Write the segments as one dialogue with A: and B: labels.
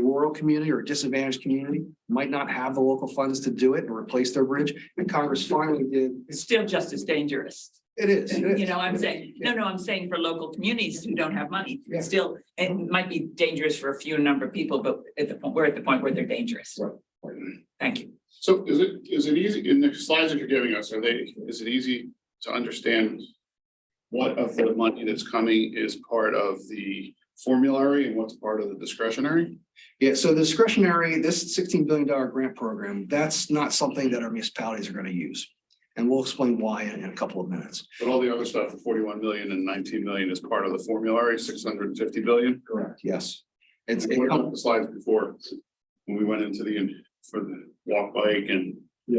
A: rural community or disadvantaged community might not have the local funds to do it and replace their bridge. And Congress finally did,
B: It's still just as dangerous.
A: it is. it is.
B: You know, I'm saying, no, no, I'm saying for local communities who don't have money,
A: Yeah.
B: still, it might be dangerous for a few number of people, but at the point, we're at the point where they're dangerous.
A: Right.
B: Thank you.
C: So is it, is it easy, in the slides that you're giving us, are they, is it easy to understand? What of the money that's coming is part of the formulary and what's part of the discretionary?
A: Yeah, so the discretionary, this sixteen billion dollar grant program, that's not something that our municipalities are gonna use. And we'll explain why in in a couple of minutes.
C: But all the other stuff, the forty-one million and nineteen million is part of the formulary, six hundred and fifty billion?
A: Correct. Yes. It's, it
C: What
A: comes-
C: about the slides before? When we went into the, for the walk bike and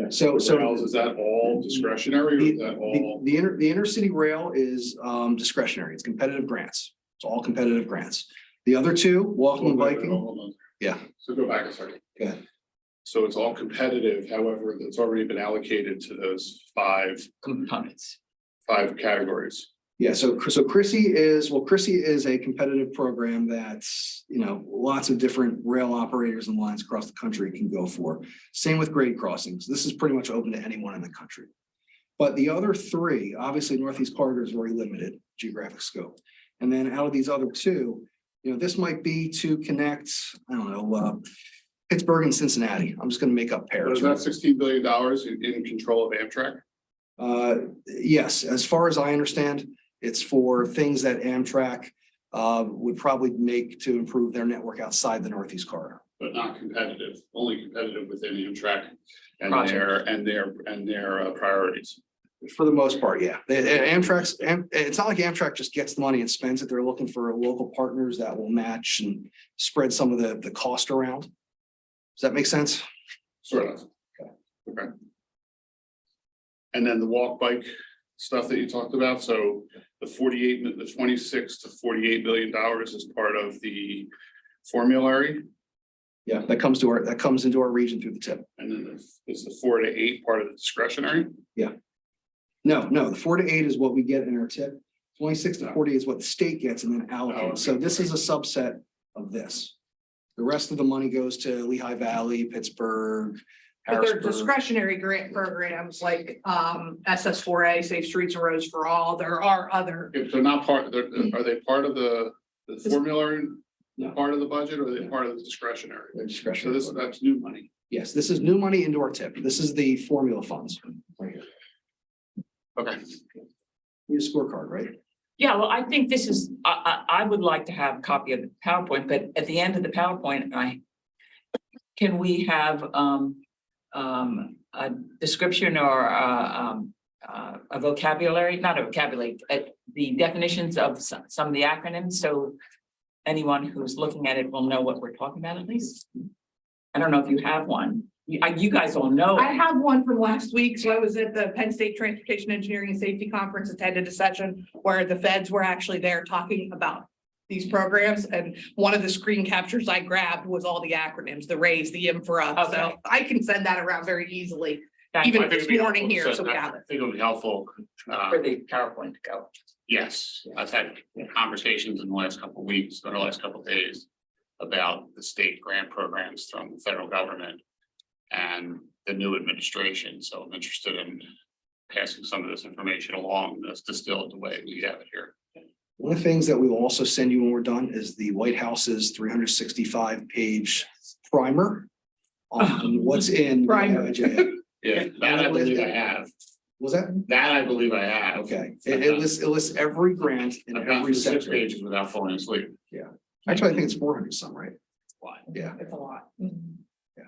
A: so, so.
C: rails, is that all discretionary or is that
A: The,
C: all?
A: the inner, the inner city rail is um discretionary. It's competitive grants. It's all competitive grants. The other two, walking and biking, Yeah.
C: So go back a second.
A: Yeah.
C: So it's all competitive, however, that's already been allocated to those five,
B: Components.
C: five categories.
A: yeah, so, so Chrissy is, well, Chrissy is a competitive program that's, you know, lots of different rail operators and lines across the country can go for. Same with grade crossings. This is pretty much open to anyone in the country. But the other three, obviously Northeast Corridor is very limited geographic scope. And then out of these other two, you know, this might be to connect, I don't know, uh, Pittsburgh and Cincinnati. I'm just gonna make up pairs.
C: Is that sixteen billion dollars in, in control of Amtrak?
A: Uh, yes, as far as I understand, it's for things that Amtrak uh, would probably make to improve their network outside the Northeast Corridor.
C: But not competitive, only competitive within Amtrak and
B: Project.
C: their, and their, and their uh, priorities.
A: For the most part, yeah. They- they- Amtrak's, Am- it's not like Amtrak just gets the money and spends it. They're looking for local partners that will match and spread some of the, the cost around. Does that make sense?
C: Sort of. Okay. And then the walk bike stuff that you talked about, so the forty-eight, mi- the twenty-six to forty-eight million dollars is part of the formulary.
A: Yeah, that comes to our, that comes into our region through the tip.
C: And then the- is the four to eight part of the discretionary?
A: No, no, the four to eight is what we get in our tip. Twenty-six to forty is what the state gets and then allocated. So this is a subset of this. The rest of the money goes to Lehigh Valley, Pittsburgh,
D: But they're
A: Harrisburg.
D: discretionary grant programs like um SS four A, Safe Streets and Roads for All. There are other,
C: If they're not part, they're, are they part of the, the formulary?
A: No.
C: Part of the budget or are they
A: No.
C: part of the discretionary?
A: They're
C: So
A: discretionary.
C: this, that's new money.
A: Yes, this is new money into our tip. This is the formula funds. right here.
C: Okay.
A: Need a scorecard, right?
B: Yeah, well, I think this is, I, I, I would like to have a copy of the PowerPoint, but at the end of the PowerPoint, I. Can we have, um, um, a description or, uh, um, uh, a vocabulary, not a vocabulary, uh, the definitions of some, some of the acronyms, so. Anyone who's looking at it will know what we're talking about at least. I don't know if you have one. You, I- you guys all know.
D: I have one from last week. So I was at the Penn State Transportation Engineering and Safety Conference, attended a session where the feds were actually there talking about these programs and one of the screen captures I grabbed was all the acronyms, the RAISE, the infra.
B: Okay.
D: So I can send that around very easily.
B: That's
D: even
C: I think
D: this
C: it'd be
D: morning
C: helpful.
D: here, so we
C: that-
D: have it.
C: I think it'll be helpful. uh,
B: Where the PowerPoint to go.
C: Yes, I've had conversations in the last couple of weeks, or the last couple of days. About the state grant programs from the federal government. And the new administration, so I'm interested in. Passing some of this information along, that's distilled the way we have it here.
A: One of the things that we will also send you when we're done is the White House's three hundred sixty-five page primer. On what's in. the
D: Primer.
A: IIJA.
C: Yeah, that I believe I have,
A: Was that?
C: that I believe I have.
A: Okay, it it lists, it lists every grant in
C: I've gone
A: every
C: through six
A: sector.
C: pages without falling asleep.
A: Actually, I think it's four hundred some, right?
C: Why?
A: Yeah,
D: It's a lot.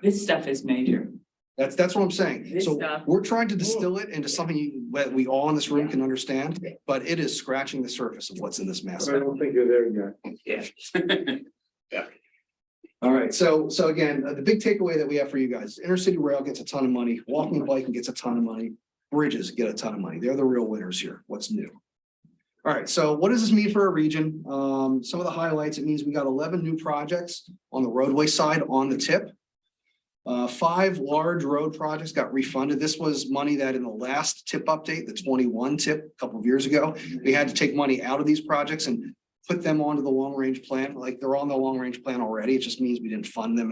B: This stuff is major.
A: that's, that's what I'm saying.
B: This
A: So
B: stuff-
A: we're trying to distill it into something you- that we all in this room can understand, but it is scratching the surface of what's in this
E: I
A: massive.
E: don't think you're there yet.
A: All right, so, so again, uh, the big takeaway that we have for you guys, inner city rail gets a ton of money, walking and biking gets a ton of money, bridges get a ton of money. They're the real winners here. What's new? All right, so what does this mean for our region? Um, some of the highlights, it means we got eleven new projects on the roadway side on the tip. Uh, five large road projects got refunded. This was money that in the last tip update, the twenty-one tip a couple of years ago, we had to take money out of these projects and put them onto the long range plan, like they're on the long range plan already. It just means we didn't fund them in